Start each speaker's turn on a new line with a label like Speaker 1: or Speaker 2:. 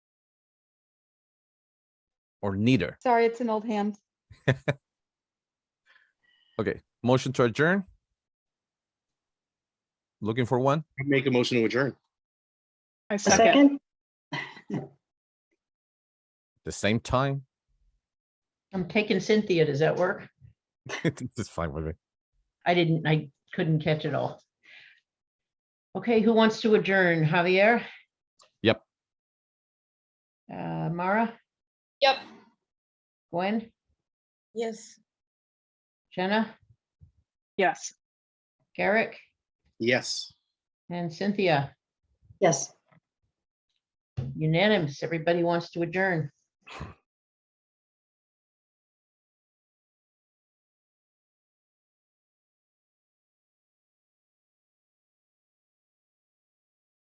Speaker 1: or neither.
Speaker 2: Sorry, it's an old hand.
Speaker 1: Motion to adjourn? Looking for one?
Speaker 3: I Make a motion to adjourn.
Speaker 4: I
Speaker 5: A
Speaker 4: second.
Speaker 5: second?
Speaker 1: The same time?
Speaker 5: I'm taking Cynthia. Does that work?
Speaker 1: It's fine with me.
Speaker 5: I didn't, I couldn't catch it all. Okay, who wants to adjourn? Javier?
Speaker 1: Yep.
Speaker 5: Uh, Mara,
Speaker 6: Yep.
Speaker 5: Gwen,
Speaker 6: Yes.
Speaker 5: Jenna,
Speaker 4: Yes.
Speaker 5: Garrick,
Speaker 3: Yes.
Speaker 5: and Cynthia.
Speaker 4: Yes.
Speaker 5: Unanimous. Everybody wants to adjourn.